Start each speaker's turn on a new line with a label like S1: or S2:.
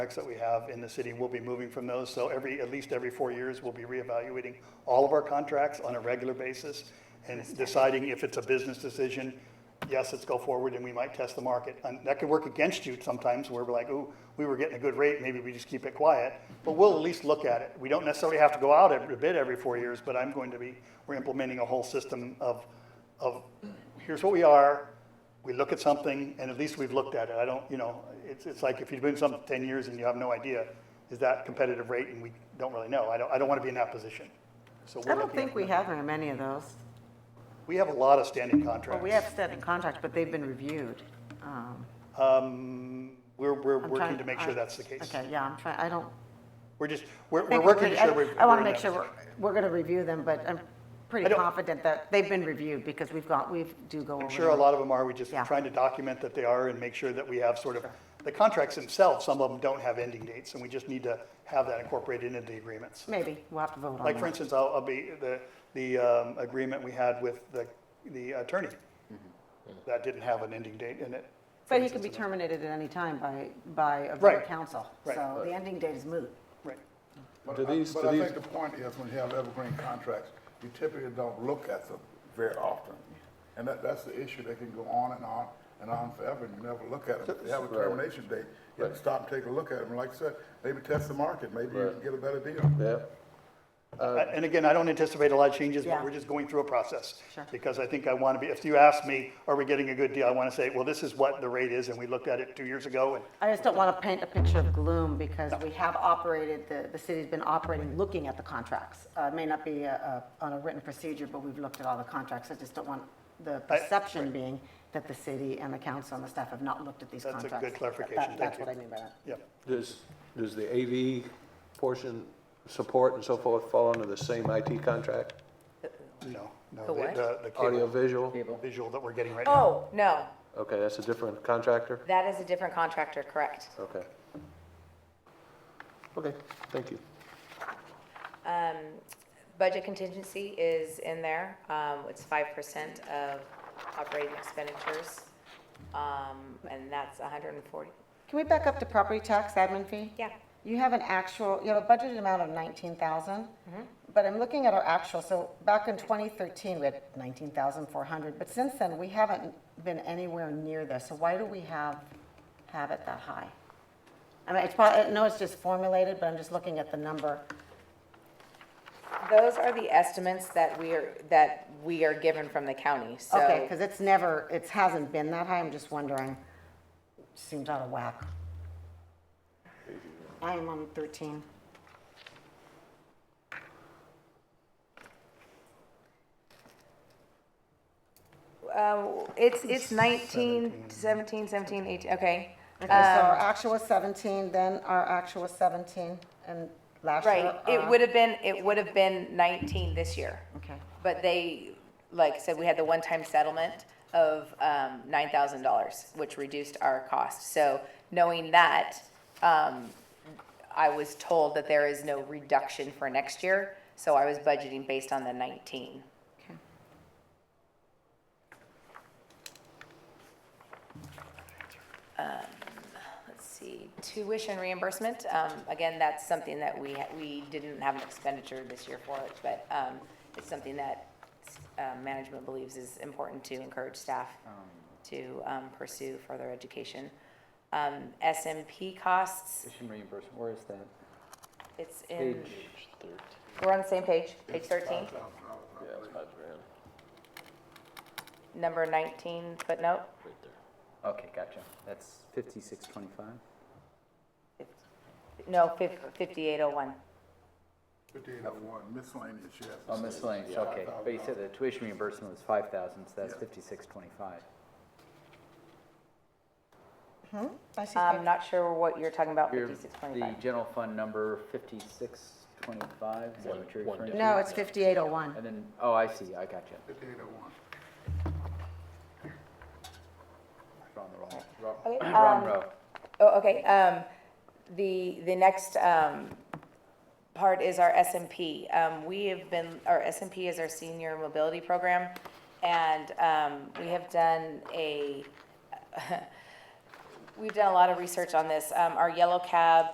S1: contracts that we have in the city, and we'll be moving from those. So every, at least every four years, we'll be reevaluating all of our contracts on a regular basis and deciding if it's a business decision, yes, let's go forward, and we might test the market. And that could work against you sometimes, where we're like, ooh, we were getting a good rate, maybe we just keep it quiet. But we'll at least look at it. We don't necessarily have to go out and bid every four years, but I'm going to be, we're implementing a whole system of, of, here's what we are, we look at something, and at least we've looked at it. I don't, you know, it's, it's like if you've been something 10 years and you have no idea, is that competitive rate? And we don't really know. I don't, I don't want to be in that position. So we're
S2: I don't
S1: looking at-
S2: think we have very many of those.
S1: We have a lot of standing
S2: Well,
S1: contracts.
S2: we have set in contracts, but they've been reviewed. Um,
S1: Um, We're, we're
S2: I'm
S1: working
S2: trying-
S1: to make sure
S2: I-
S1: that's the case.
S2: Okay, yeah, I'm trying, I don't.
S1: We're just, we're, we're
S2: think
S1: working to
S2: I-
S1: sure we're.
S2: I want
S1: we're
S2: to
S1: in
S2: make
S1: that
S2: sure we're,
S1: position.
S2: we're going to review them, but I'm
S1: I
S2: pretty
S1: don't-
S2: confident that they've been reviewed because we've got, we do go over.
S1: I'm sure a
S2: them.
S1: lot of them are. We're just
S2: Yeah.
S1: trying to document that they are and make sure that we have sort of, the contracts themselves, some of them don't have ending dates, and we just need to have that incorporated into the agreements.
S2: Maybe, we'll have to vote on that.
S1: Like, for instance, I'll, I'll be, the, the um, agreement we had with the, the attorney, that didn't have an ending date in it. for
S2: But he can be
S1: instance.
S2: terminated at any time by, by a vote
S1: Right.
S2: of council.
S1: Right.
S2: So the ending date is moot.
S1: Right.
S3: But
S4: Do
S3: I-
S4: these-
S3: But
S4: do
S3: I
S4: these-
S3: think the point is, when you have evergreen contracts, you typically don't look at them very often. And that, that's the issue, they can go on and on and on forever, and you never look at them. If you have a termination date, you have to stop and take a look at them, And like I said, maybe test the market, maybe you can get a better deal.
S4: Yeah,
S1: Uh, And again, I don't anticipate a lot of changes, but
S2: Yeah.
S1: we're just going through a process.
S2: Sure.
S1: Because I think I want to be, if you ask me, are we getting a good deal, I want to say, well, this is what the rate is, and we looked at it two years ago, and
S2: I just don't want to paint a picture of gloom because we have operated, the, the city's been operating, looking at the contracts. Uh, It may not be uh, uh, on a written procedure, but we've looked at all the contracts. I just don't want the perception being that the city and the council and the staff have not looked at these
S1: That's a
S2: contracts.
S1: good
S2: That-
S1: clarification.
S2: that-
S1: Thank
S2: That's
S1: you.
S2: what I mean by that.
S1: yeah.
S4: does, does the AV portion, support and so forth, fall under the same IT contract?
S1: No, no.
S5: The what?
S1: The, the
S4: Audio
S1: cable
S4: visual?
S1: visual that we're getting right now.
S5: Oh, no,
S4: Okay, that's a different contractor?
S5: that is a different contractor, correct.
S4: Okay. Okay, thank you.
S5: Budget contingency is in there. Um, It's 5% of operating expenditures, Um, and that's 140.
S2: Can we back up to property tax admin fee?
S5: Yeah.
S2: You have an actual, you have a budgeted amount of 19,000, but I'm looking at our actual, so back in 2013, we had 19,400, but since then, we haven't been anywhere near this, so why do we have, have it that high? I mean, it's probably, I know it's just formulated, but I'm just looking at the number.
S5: Those are the estimates that we are, that we are given from the county, so.
S2: Okay, because it's never, it hasn't been that high, I'm just wondering, seems out of whack. I am on 13.
S5: Uh, It's, it's 19, 17, 17, 18, okay.
S2: Okay, so our
S5: Um,
S2: actual was 17, then our actual was 17, and last year.
S5: Right, it
S2: our-
S5: would have been, it would have been 19 this year.
S2: Okay,
S5: But they, like I said, we had the one-time settlement of um, $9,000, which reduced our cost. So knowing that, um, I was told that there is no reduction for next year, so I was budgeting based on the 19.
S2: okay.
S5: Let's see, tuition reimbursement, um, again, that's something that we, ha- we didn't have an expenditure this year for it, but um, it's something that uh, management believes is important to encourage staff to um, pursue further education. Um, SMP costs,
S6: Tuition reimbursement, where is that?
S5: it's
S6: Page
S5: in,
S6: thirteen.
S5: we're on the same page, page 13,
S6: Yeah, it's five grand.
S5: number 19 footnote.
S6: Okay, gotcha. That's fifty-six twenty-five?
S5: No, fif- 5801.
S3: Fifty-eight oh one, miscellaneous, yes.
S6: Oh, miscellaneous, okay. But you said the tuition reimbursement was five thousand, so that's fifty-six twenty-five.
S2: I see
S5: I'm
S2: five-
S5: not sure what you're talking about,
S6: Your-
S5: 5625.
S6: The general fund number fifty-six twenty-five, is that what you're referring to?
S2: No, it's 5801.
S6: And then, oh, I see, I gotcha.
S3: Fifty-eight oh one.
S6: We're on the wrong, wrong,
S5: Okay,
S6: wrong
S5: um,
S6: row.
S5: Oh, okay, um, the, the next, um, part is our SMP. Um, we have been, our SMP is our senior mobility program, and, um, we have done a, we've done a lot of research on this. Um, our yellow cab